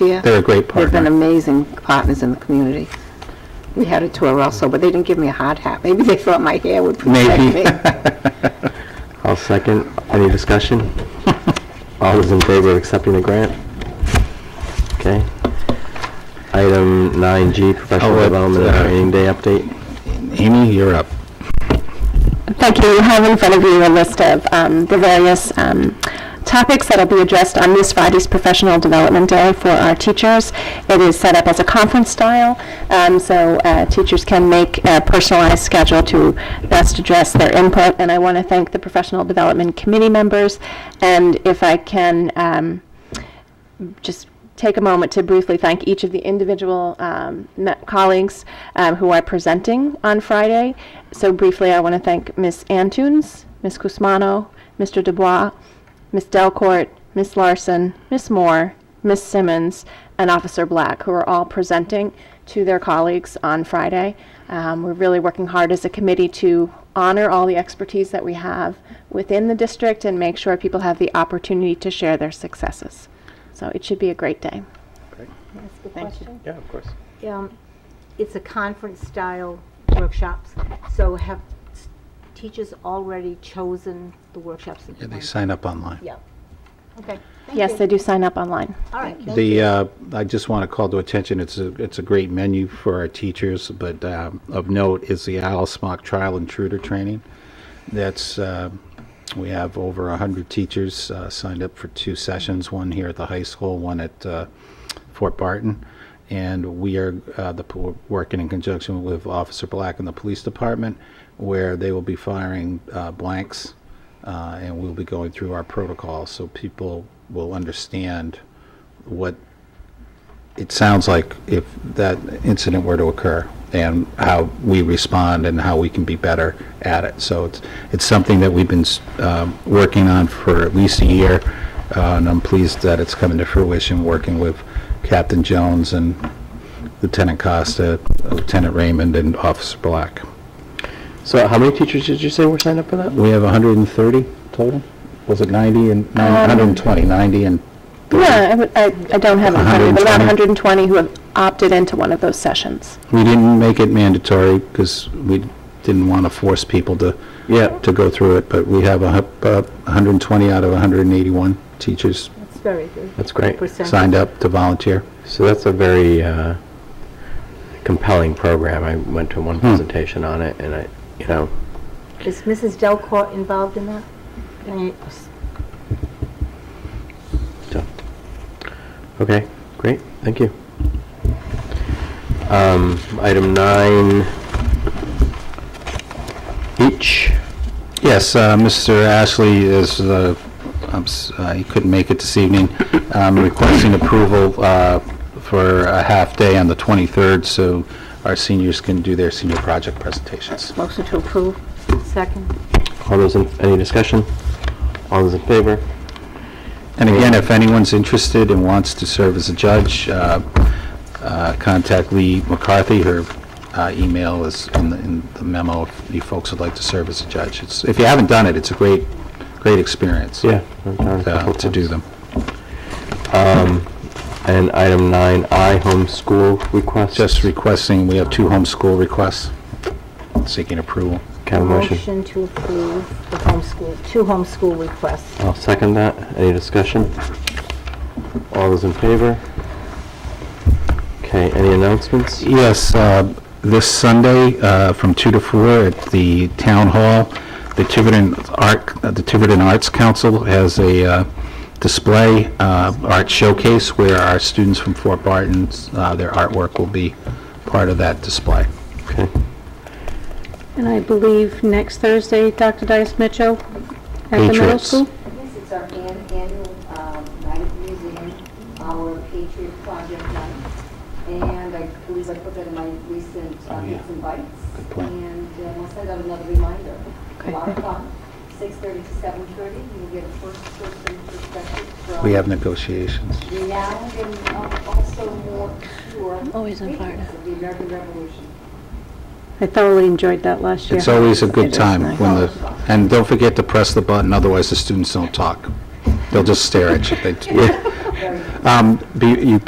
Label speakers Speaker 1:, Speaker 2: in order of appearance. Speaker 1: They're-
Speaker 2: They're a great
Speaker 1: They've been
Speaker 2: partner.
Speaker 1: amazing partners in the community. We had a tour also, but they didn't give me a hard hat. Maybe they thought my hair would protect
Speaker 2: Maybe.
Speaker 1: me.
Speaker 3: I'll second. Any discussion? All those in favor of accepting the grant? Okay. Item 9G,
Speaker 2: I'll
Speaker 3: professional
Speaker 2: let,
Speaker 3: development and
Speaker 2: uh,
Speaker 3: training day update.
Speaker 2: Amy, you're up.
Speaker 4: Thank you. You have in front of you a list of um, the various um, topics that will be addressed on this Friday's Professional Development Day for our teachers. It is set up as a conference style, um, so uh, teachers can make a personalized schedule to best address their input. And I want to thank the Professional Development Committee members, and if I can, um, just take a moment to briefly thank each of the individual um, me- colleagues um, who are presenting on Friday. So briefly, I want to thank Ms. Antunes, Ms. Cusmano, Mr. Dubois, Ms. Delcourt, Ms. Larson, Ms. Moore, Ms. Simmons, and Officer Black, who are all presenting to their colleagues on Friday. Um, we're really working hard as a committee to honor all the expertise that we have within the district and make sure people have the opportunity to share their successes. So it should be a great day.
Speaker 3: Yeah, of course.
Speaker 5: um, it's a conference-style workshops, so have s- teachers already chosen the workshops? that
Speaker 2: Yeah,
Speaker 5: they
Speaker 2: They
Speaker 5: want?
Speaker 2: sign up online.
Speaker 5: Yeah. Okay,
Speaker 4: Yes, they do sign up online.
Speaker 5: all right.
Speaker 2: The, uh, I just want to call to attention, it's a, it's a great menu for our teachers, but um, of note is the Al Smock Trial Intruder Training. That's, uh, we have over 100 teachers uh, signed up for two sessions, one here at the high school, one at uh, Fort Barton. And we are, uh, the, po- working in conjunction with Officer Black and the Police Department, where they will be firing uh, blanks, uh, and we'll be going through our protocol, so people will understand what it sounds like if that incident were to occur and how we respond and how we can be better at it. So it's, it's something that we've been um, working on for at least a year, uh, and I'm pleased that it's coming to fruition, working with Captain Jones and Lieutenant Costa, Lieutenant Raymond, and Officer Black.
Speaker 3: So how many teachers did you say were signed up for that?
Speaker 2: We have 130 total? Was it 90 and, no, 120, 90 and
Speaker 4: Yeah, I would- I, I don't have it in front of me, but about
Speaker 2: 120?
Speaker 4: 120 who have opted into one of those sessions.
Speaker 2: We didn't make it mandatory because we didn't want to force people to,
Speaker 3: Yeah.
Speaker 2: to go through it, but we have a hu- uh, 120 out of 181 teachers
Speaker 5: That's very good.
Speaker 3: That's great.
Speaker 5: Percent.
Speaker 2: signed up to volunteer.
Speaker 3: So that's a very uh, compelling program. I went to one presentation on it, and I, you know,
Speaker 5: Is Mrs. Delcourt involved in that? I mean, s-
Speaker 3: so, okay, great, thank you. Um, Item 9H,
Speaker 2: Yes, uh, Mr. Ashley is, uh, I'm s- uh, he couldn't make it this evening, Um, requesting approval uh, for a half day on the 23rd so our seniors can do their senior project presentations.
Speaker 1: Motion to approve.
Speaker 5: Second.
Speaker 3: all those, in any discussion? All those in favor?
Speaker 2: And again, if anyone's interested and wants to serve as a judge, uh, uh, contact Lee McCarthy. Her uh, email is in the- in the memo if you folks would like to serve as a judge. It's- If you haven't done it, it's a great, great experience.
Speaker 3: Yeah. I've done it a
Speaker 2: uh,
Speaker 3: couple
Speaker 2: To do
Speaker 3: times.
Speaker 2: them.
Speaker 3: And item 9I, homeschool request.
Speaker 2: Just requesting, we have two homeschool requests seeking approval.
Speaker 3: Can I have a motion?
Speaker 5: Motion to approve the homeschool, two homeschool requests.
Speaker 3: I'll second that. Any discussion? All those in favor? Okay, any announcements?
Speaker 2: Yes, uh, this Sunday uh, from 2 to 4 at the Town Hall, the Tiverton Art, uh, the Tiverton Arts Council has a uh, display, uh, art showcase, where our students from Fort Barton, uh, their artwork will be part of that display.
Speaker 3: Okay.
Speaker 6: And I believe next Thursday, Dr. Dice Mitchell at the middle
Speaker 2: Patriots.
Speaker 6: school?
Speaker 7: This is our an- annual um, night at the museum, our Patriot Project night. And I believe I put that in my recent uh,
Speaker 2: Oh, yeah.
Speaker 7: bits and bites.
Speaker 2: Good point.
Speaker 7: And uh, we'll send out another reminder. Lot of fun. 6:30 to 7:30, you'll get a first person perspective from
Speaker 2: We have negotiations.
Speaker 7: renowned and um, also more sure. Always in fire. Of the American Revolution.
Speaker 6: I thoroughly enjoyed that last year.
Speaker 2: It's always a good
Speaker 1: is
Speaker 2: time
Speaker 1: nice.
Speaker 2: when the, and don't forget to press the button, otherwise the students don't talk. They'll just stare at you. They- Um, be- You